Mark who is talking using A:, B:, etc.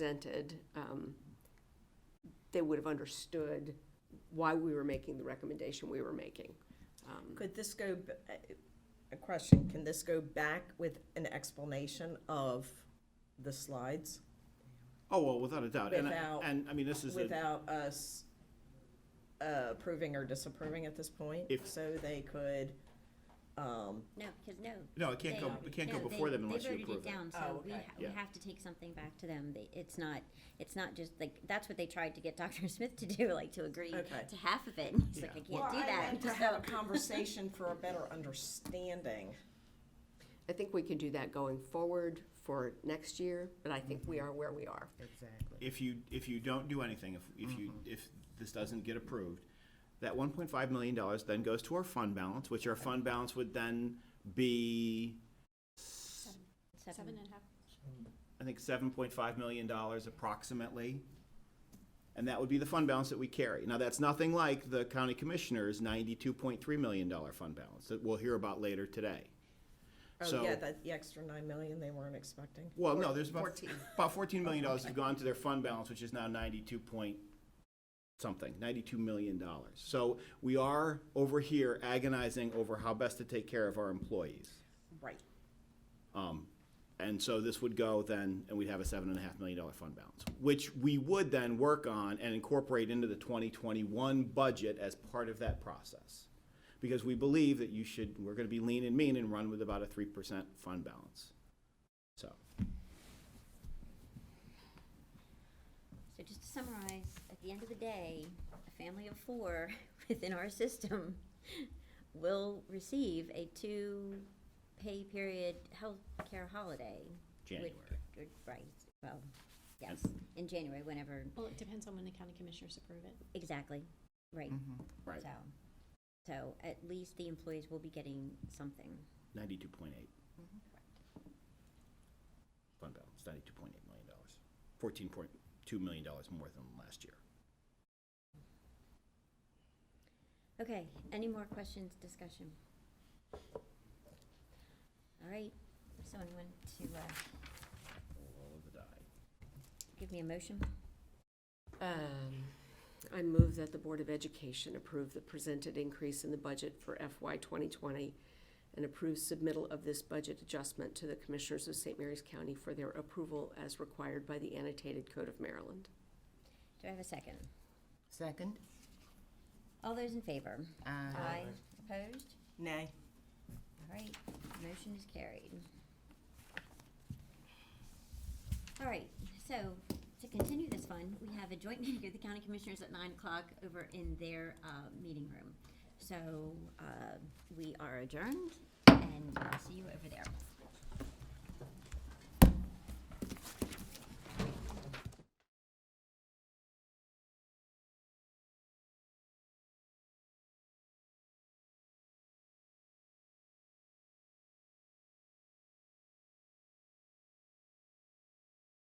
A: presented, um, they would have understood why we were making the recommendation we were making. Um,
B: Could this go, b- uh, a question, can this go back with an explanation of the slides
C: Oh, well, without a doubt. And, I-
B: Without-
C: and I mean, this is, a-
B: without us uh, approving or disapproving at this point?
C: If-
B: So they could, um,
D: No, because no.
C: no, it can't go,
D: they-
C: it can't go
D: no, they-
C: before them unless you
D: They
C: approve
D: voted it
C: it.
D: down,
B: Oh,
D: so we,
B: okay.
D: ha- we
C: Yeah.
D: have to take something back to them. They, it's not, it's not just like, that's what they tried to get Dr. Smith to do, like to agree
B: Okay.
D: to half of it. And He's like, I
C: Yeah.
B: well,
D: can't do
B: I
D: that.
B: meant to
D: So-
B: have a conversation for a better understanding.
A: I think we can do that going forward for next year, but I think we are where we are.
E: Exactly.
C: If you, if you don't do anything, if, if you,
B: Mm-hmm.
C: if this doesn't get approved, that one point five million dollars then goes to our fund balance, which our fund balance would then be,
D: Seven and a half.
C: I think, seven point five million dollars approximately. And that would be the fund balance that we carry. Now, that's nothing like the county commissioner's ninety-two point three million dollar fund balance that we'll hear about later today.
B: Oh,
C: So-
B: yeah, that, the extra nine million they weren't expecting.
C: Well, no, there's about,
B: 14.
C: about fourteen million dollars have gone to their fund balance, which is now ninety-two point something, ninety-two million dollars. So we are over here agonizing over how best to take care of our employees.
B: Right.
C: Um, and so this would go then, and we'd have a seven and a half million dollar fund balance, which we would then work on and incorporate into the twenty twenty-one budget as part of that process. Because we believe that you should, we're gonna be lean and mean and run with about a three percent fund balance. So.
D: So just to summarize, at the end of the day, a family of four within our system will receive a two-pay period health care holiday. which-
C: January.
D: uh, Right, well,
C: And-
D: yes, in January, whenever,
F: Well, it depends on when the county commissioners approve it.
D: exactly, right,
C: Right,
D: so. So at least the employees will be getting something.
C: ninety-two point eight. Fund balance, ninety-two point eight million dollars, fourteen point two million dollars more than last year.
D: Okay, any more questions, discussion? All right, someone want to uh,
C: Roll of the die.
D: give me a motion?
A: Um, I move that the Board of Education approve the presented increase in the budget for FY 2020 and approve submittal of this budget adjustment to the Commissioners of St. Mary's County for their approval as required by the Annotated Code of Maryland.
D: Do I have a second?
E: Second?
D: All those in favor?
E: Aye.
D: Opposed?
B: Nay.
D: All right, motion is carried. All right, so to continue this fun, we have a joint meeting of the county commissioners at nine o'clock over in their, uh, meeting room. So, uh, we are adjourned and I'll see you over there.